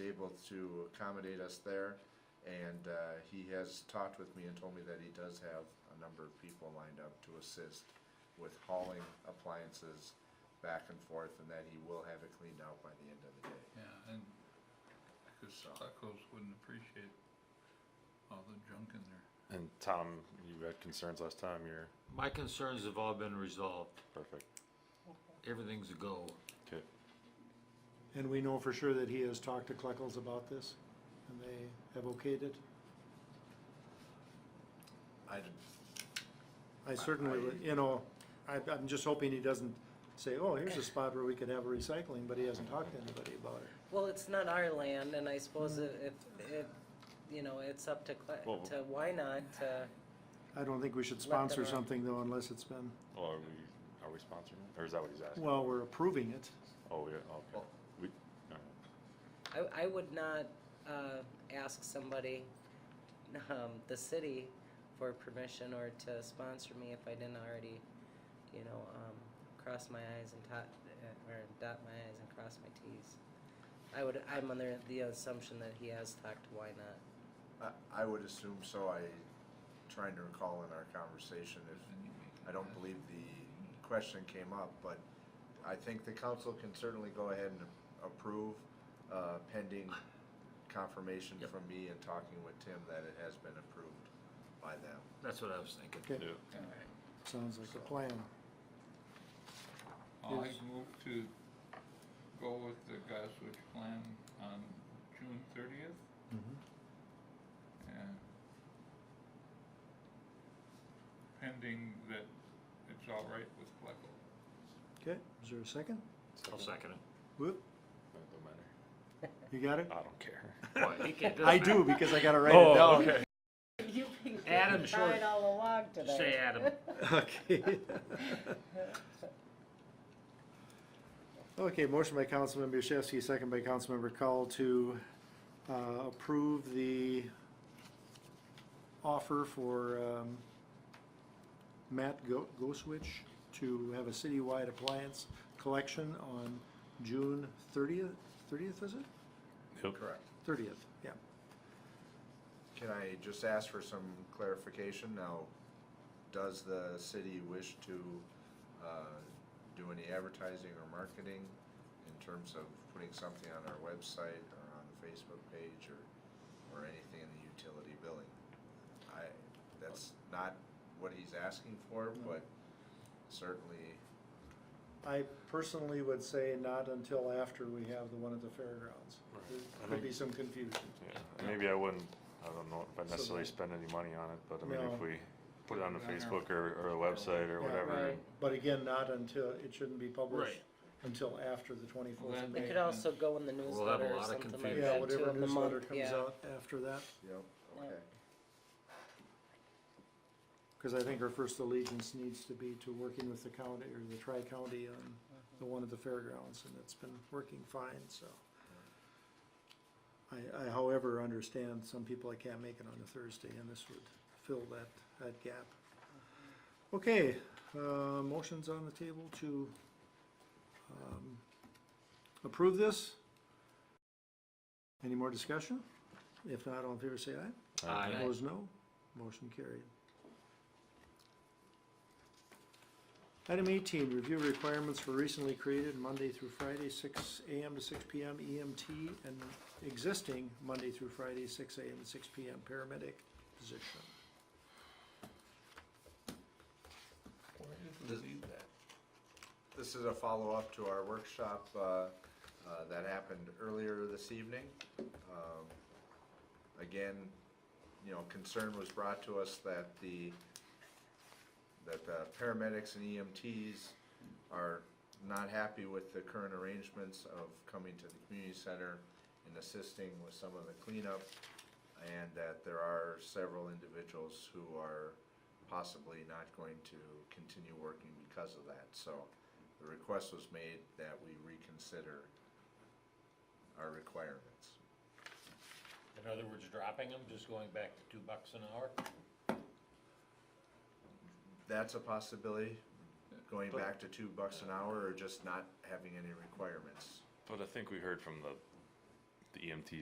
able to accommodate us there. And uh, he has talked with me and told me that he does have a number of people lined up to assist with hauling appliances back and forth and that he will have it cleaned out by the end of the day. Yeah, and, cause So- Buckles wouldn't appreciate all the junk in there. And Tom, you had concerns last time, you're My concerns have all been resolved. perfect. Everything's a go. Okay, And we know for sure that he has talked to Kleckels about this, and they have okayed it. I did, I certainly, would- you know, I, I'm just hoping he doesn't say, oh, here's a spot where we could have a recycling, but he hasn't talked to anybody about it. Well, it's not our land, and I suppose if, if- if, you know, it's up to, Cle- Well- to why not, uh, I don't think we should them sponsor run. something though unless it's been, well, are we, are we sponsoring, it? or is that what he's asking? well, we're approving it. Oh, yeah, okay, Well- we, alright, I, I would not, uh, ask somebody, um, the city for permission or to sponsor me if I didn't already, you know, um, cross my i's and dot, uh, or dot my i's and cross my t's. I would, I'm under the assumption that he has talked to why not. I, I would assume so. I, trying to recall in our conversation if Then you make it I don't last. believe the question came up, but I think the council can certainly go ahead and approve uh, pending confirmation from me and talking with Tim that it has been approved by them. That's what I was thinking. Okay, yeah, Yeah. sounds like a plan. I Yes. move to go with the Goswich plan on June thirtieth Mm-hmm. and pending that it's all right with Pleco. Okay, is there a second? I'll second it. Whoop, no, it don't matter, you got it? I don't care. Oh, Why, he can't- I do, because I gotta write it down. okay. You've been Adam getting Short. right all along today. Say Adam. Okay. Okay, motion by Councilman Yashewski, second by Councilmember Cowell to uh, approve the offer for um, Matt Go- Goswitch to have a citywide appliance collection on June thirtieth, thirtieth, is it? Yep. Correct. Thirtieth, yeah. Can I just ask for some clarification now? Does the city wish to uh, do any advertising or marketing in terms of putting something on our website or on the Facebook page or, or anything in the utility billing? I, that's not what he's asking for, but certainly, I personally would say not until after we have the one at the fairgrounds. There could be some confusion. Yeah, and maybe I wouldn't, I don't know if I So necessarily the- spend any money on it, but I mean, No. if we put it on the Put it on our- Facebook or, or a website or Yeah. whatever, Right. But again, not until, it shouldn't be published Right. until after the twenty-fourth of Well, They May. could also go in the We'll have a newsletter or lot of something like confusion. Yeah, that too, whatever in the newsletter month, comes yeah. out after that, yep, okay. because I think our first allegiance needs to be to working with the county or the tri-county on the one at the fairgrounds, and it's been working fine, so. I, I however understand some people I can't make it on a Thursday, and this would fill that, that gap. Okay, uh, motions on the table to, um, approve this? Any more discussion? If not, all in favor say aye. uh, Aye. Opposed, no. Motion carried. Item eighteen, review requirements for recently created Monday through Friday, six AM to six PM EMT and existing Monday through Friday, six AM to six PM paramedic position. Where did Does- we leave that? This is a follow-up to our workshop uh, uh, that happened earlier this evening. Um, Again, you know, concern was brought to us that the, that the paramedics and EMTs are not happy with the current arrangements of coming to the community center and assisting with some of the cleanup, and that there are several individuals who are possibly not going to continue working because of that. So the request was made that we reconsider our requirements. In other words, dropping them, just going back to two bucks an hour? That's a possibility, going back to two bucks an hour or just not having any requirements. But I think we heard from the, E the EMT